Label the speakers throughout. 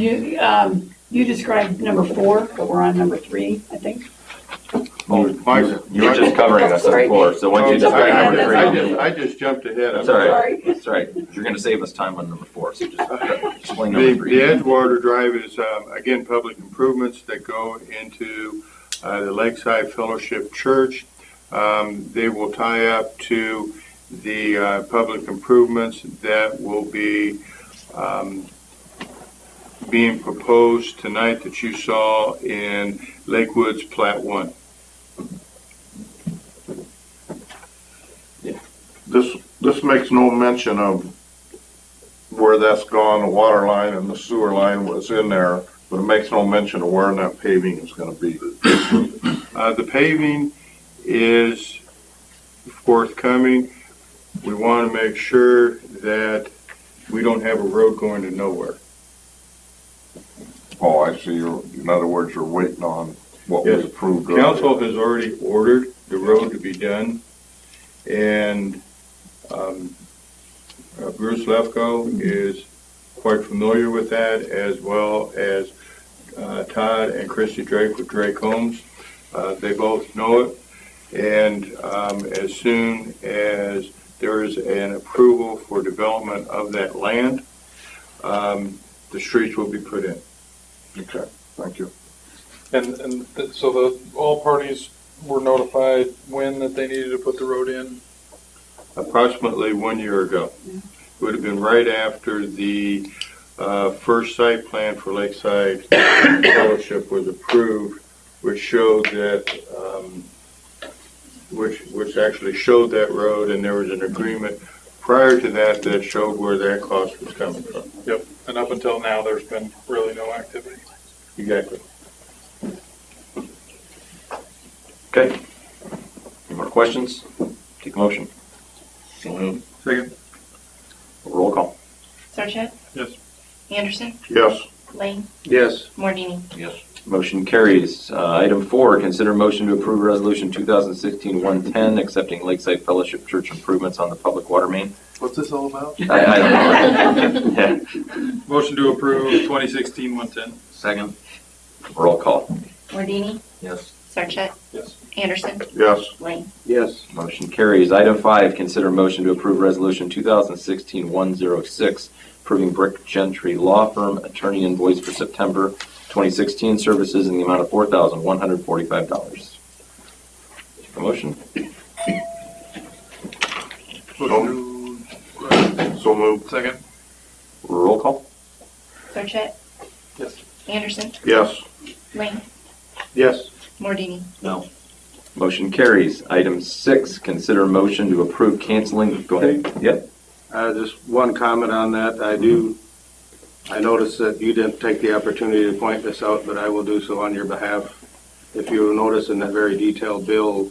Speaker 1: You, um, you described number four, but we're on number three, I think.
Speaker 2: Mike.
Speaker 3: You're just covering us on four, so once you
Speaker 2: Oh, sorry,
Speaker 3: describe
Speaker 2: I
Speaker 3: number
Speaker 2: just-
Speaker 3: three,
Speaker 2: I
Speaker 3: then-
Speaker 2: just- I just jumped ahead. I'm
Speaker 3: That's all right.
Speaker 1: Sorry.
Speaker 3: That's right. You're gonna save us time on number four, so just explain
Speaker 2: The,
Speaker 3: number
Speaker 2: the
Speaker 3: three.
Speaker 2: Edgewater Drive is, um, again, public improvements that go into, uh, the Lakeside Fellowship Church. Um, they will tie up to the, uh, public improvements that will be, um, being proposed tonight that you saw in Lakewood's Plat One.
Speaker 4: This, this makes no mention of where that's gone, the water line and the sewer line was in there, but it makes no mention of where that paving is gonna be.
Speaker 2: Uh, the paving is forthcoming. We want to make sure that we don't have a road going to nowhere.
Speaker 4: Oh, I see, you're, in other words, you're waiting on what
Speaker 2: Yes.
Speaker 4: was approved earlier.
Speaker 2: Council has already ordered the road to be done, and um, uh, Bruce Lefko is quite familiar with that, as well as uh, Todd and Christy Drake with Drake Homes. Uh, They both know it, and um, as soon as there is an approval for development of that land, um, the streets will be put in.
Speaker 4: Okay, thank you.
Speaker 5: And, and th- so the, all parties were notified when that they needed to put the road in?
Speaker 2: approximately one year ago. Would have been right after the uh, first site plan for Lakeside Fellowship was approved, which showed that, um, which, which actually showed that road, and there was an agreement prior to that that showed where that cost was coming from.
Speaker 5: Yep. And up until now, there's been really no activity.
Speaker 2: Exactly.
Speaker 3: Okay. Any more questions? Take a motion.
Speaker 2: Second.
Speaker 3: Roll call.
Speaker 6: Sarchet?
Speaker 2: Yes.
Speaker 6: Anderson?
Speaker 4: Yes,
Speaker 6: Lane?
Speaker 5: Yes.
Speaker 6: Mordini?
Speaker 3: Motion carries. Uh, Item four, consider motion to approve resolution 2016-110, accepting Lakeside Fellowship Church improvements on the public water main.
Speaker 5: What's this all about?
Speaker 3: I- I don't know. Yeah.
Speaker 5: Motion to approve twenty sixteen one ten.
Speaker 3: Second. Roll call.
Speaker 6: Mordini?
Speaker 3: Yes.
Speaker 6: Sarchet?
Speaker 5: Yes.
Speaker 6: Anderson?
Speaker 4: yes,
Speaker 6: Lane?
Speaker 5: Yes.
Speaker 3: Motion carries. Item five, consider motion to approve resolution 2016-106, approving Brick Gentry Law Firm attorney invoice for September 2016 services in the amount of $4,145. A Motion?
Speaker 4: so moved,
Speaker 5: Second.
Speaker 3: Roll call?
Speaker 6: Sarchet?
Speaker 5: Yes.
Speaker 6: Anderson?
Speaker 4: yes,
Speaker 6: Lane?
Speaker 2: Yes.
Speaker 6: Mordini?
Speaker 3: Motion carries. Item six, consider motion to approve canceling, go ahead. Yep,
Speaker 7: Uh, Just one comment on that. I do, I noticed that you didn't take the opportunity to point this out, but I will do so on your behalf. If you notice in that very detailed bill,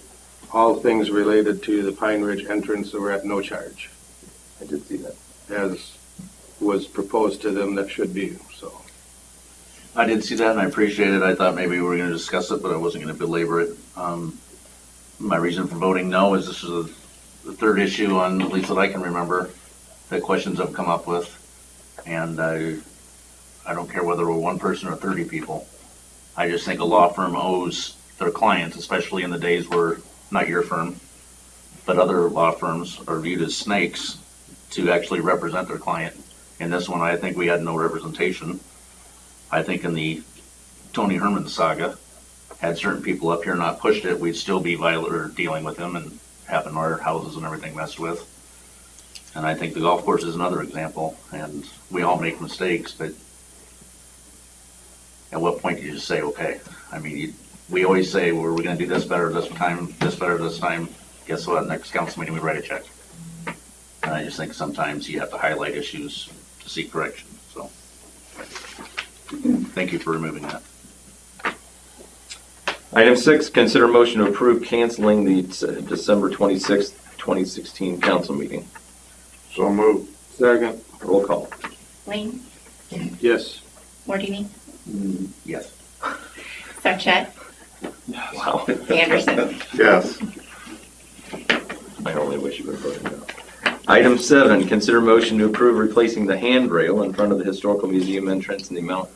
Speaker 7: all things related to the Pine Ridge entrance were at no charge,
Speaker 3: I did see that.
Speaker 7: as was proposed to them that should be, so.
Speaker 8: I did see that and I appreciate it. I thought maybe we were going to discuss it, but I wasn't going to belabor it. Um, My reason for voting no is this is the third issue on, at least that I can remember, that questions have come up with. And I, I don't care whether we're one person or 30 people. I just think a law firm owes their clients, especially in the days where, not your firm, but other law firms are viewed as snakes to actually represent their client. In this one, I think we had no representation. I think in the Tony Herman saga, had certain people up here not pushed it, we'd still be viol or dealing with them and having our houses and everything messed with. And I think the golf course is another example, and we all make mistakes, but at what point do you just say, okay? I mean, you- we always say, well, we're gonna do this better this time, this better this time. Guess what? Next council meeting, we write a check. And I just think sometimes you have to highlight issues to seek correction, so thank you for removing that.
Speaker 3: Item six, consider motion to approve canceling the uh, December 26th, 2016 council meeting.
Speaker 4: so moved,
Speaker 7: Second.
Speaker 3: Roll call.
Speaker 6: Lane?
Speaker 7: Yes.
Speaker 6: Mordini?
Speaker 8: Yes.
Speaker 6: Sarchet?
Speaker 3: Wow.
Speaker 6: Anderson?
Speaker 4: yes.
Speaker 3: I only wish you would have voted no. Item seven, consider motion to approve replacing the handrail in front of the Historical Museum entrance in the amount